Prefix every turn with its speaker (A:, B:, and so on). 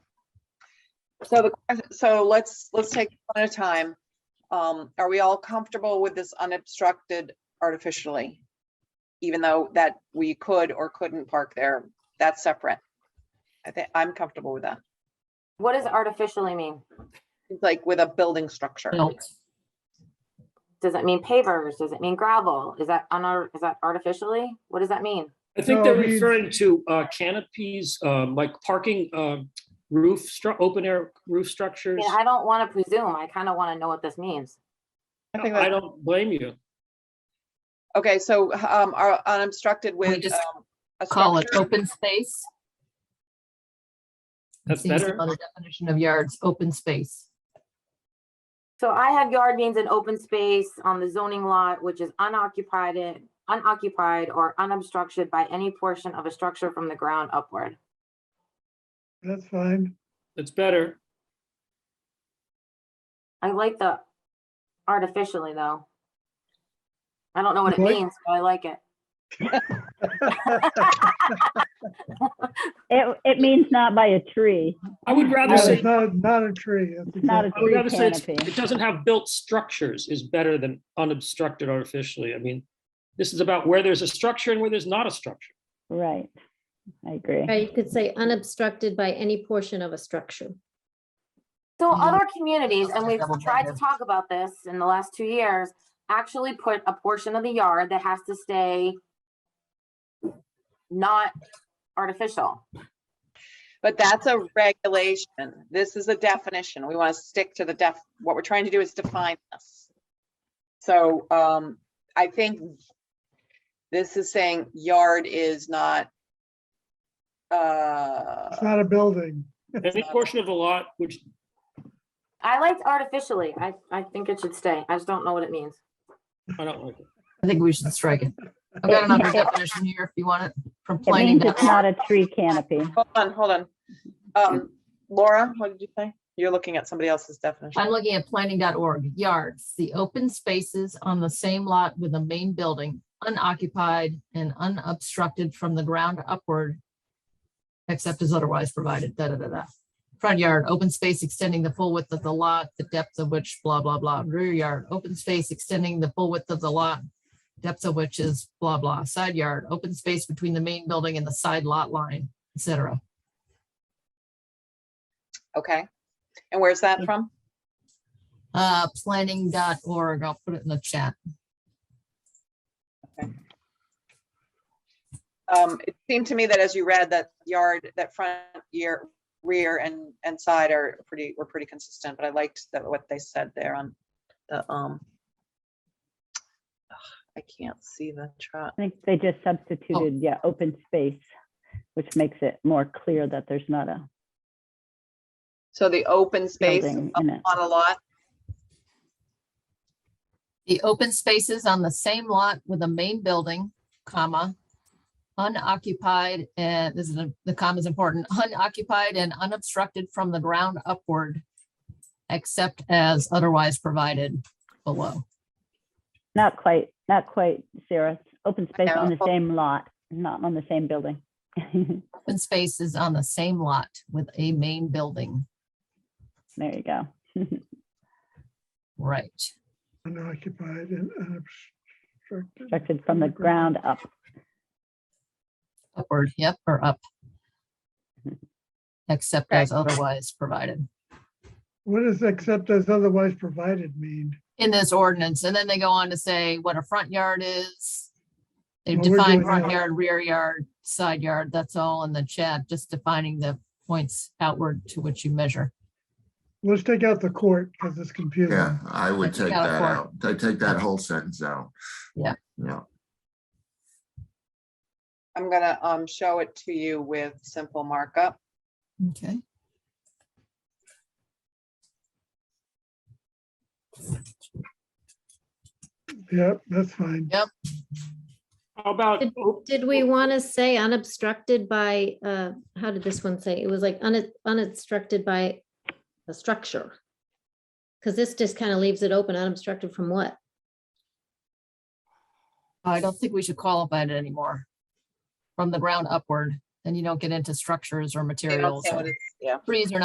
A: So the, so let's, let's take it one at a time. Um, are we all comfortable with this unobstructed artificially? Even though that we could or couldn't park there, that's separate. I think, I'm comfortable with that,
B: What does artificially mean?
A: It's like with a building structure.
C: built.
B: Does it mean pavers? Does it mean gravel? Is that on, is that artificially? What does that mean?
C: I think
D: No,
C: they're
D: I mean-
C: referring to uh, canopies, um, like parking um, roof, stru- open air roof
B: I
C: structures.
B: mean, I don't want to presume. I kind of want to know what this means.
A: I think
C: I
A: that-
C: don't blame you.
A: Okay, so, um, are unobstructed with,
C: just
A: um, a
C: call it
A: structure?
E: Open space.
C: That's
E: Seems
C: better.
E: Another definition of yards, open space.
B: So I have yard means an open space on the zoning lot, which is unoccupied, in- unoccupied or unobstructed by any portion of a structure from the ground upward.
D: That's fine.
C: That's better.
B: I like the artificially though. I don't know what it
D: What?
B: means, but I like it.
F: It, it means not by a tree,
C: I would
D: No,
C: rather
D: it's
C: say,
D: Not, not a tree. That's
F: not a
D: exactly-
C: I would
F: tree
C: rather say it's-
F: canopy.
C: it doesn't have built structures is better than unobstructed artificially. I mean, this is about where there's a structure and where there's not a structure.
F: Right. I agree.
G: Or you could say unobstructed by any portion of a structure.
B: So
E: Yeah.
B: other communities, and
E: Just
B: we've
E: double
B: tried to
E: check it.
B: talk about this in the last two years, actually put a portion of the yard that has to stay not artificial.
A: But that's a regulation. This is a definition. We want to stick to the def, what we're trying to do is define this. So um, I think this is saying yard is not uh,
D: It's not a building.
C: Any portion of the lot which
B: I liked artificially. I, I think it should stay. I just don't know what it means.
C: I don't like. it.
E: I think we should strike it. I've got another definition here if you want it from
F: It
E: planning.
F: means it's not a tree canopy.
A: hold on, hold on. Um, Laura, what did you say? You're looking at somebody else's definition.
E: I'm looking at planning.org, yards, the open spaces on the same lot with the main building, unoccupied and unobstructed from the ground upward, except as otherwise provided, da, da, da, da. Front yard, open space extending the full width of the lot, the depth of which, blah, blah, blah. Rear yard, open space extending the full width of the lot, depth of which is blah, blah. Side yard, open space between the main building and the side lot line, et cetera.
A: Okay. And where's that from?
E: Uh, planning.org, I'll put it in the chat.
A: Um, it seemed to me that as you read that yard, that front year, rear and, and side are pretty, were pretty consistent, but I liked that what they said there on the, um, I can't see the chart.
F: I think they just substituted, yeah, open space, which makes it more clear that there's not a
A: So the open space
F: building
A: on
F: in it.
A: a lot,
E: The open spaces on the same lot with the main building, comma, unoccupied, and this is, the- the comma is important, unoccupied and unobstructed from the ground upward, except as otherwise provided below.
F: Not quite, not quite, Sarah. Open space on the
A: No.
F: same lot, not on the same building. There
E: Open spaces on the same lot with a main building,
F: you go.
E: right?
D: Unoccupied and unobstructed.
F: Constructed
C: Oh
F: from the ground up.
E: Upward, yep, or up. Except
A: Okay.
E: as otherwise provided
D: What does except as otherwise provided mean?
E: in this ordinance. And then they go on to say what a front yard is. They
D: Well, we're
E: define
D: doing
E: front
D: that.
E: yard, rear yard, side yard, that's all in the chat, just defining the points outward to which you measure.
D: Let's take out the court because it's
H: Yeah,
D: confusing.
H: I would
E: Take
H: take
E: out
H: that
E: four.
H: out. I take that whole sentence out.
E: Yeah.
H: Yeah,
A: I'm gonna, um, show it to you with simple markup.
E: Okay.
D: Yep, that's fine.
C: How about,
G: Did-
C: oh,
G: Did we want to say unobstructed by, uh, how did this one say? It was like un- unobstructed by a structure. Because this just kind of leaves it open, unobstructed from what?
E: I don't think we should qualify it anymore. From the ground upward, then you don't get into structures or
A: They don't
E: materials.
A: say
E: or-
A: what it's- Yeah.
E: Trees are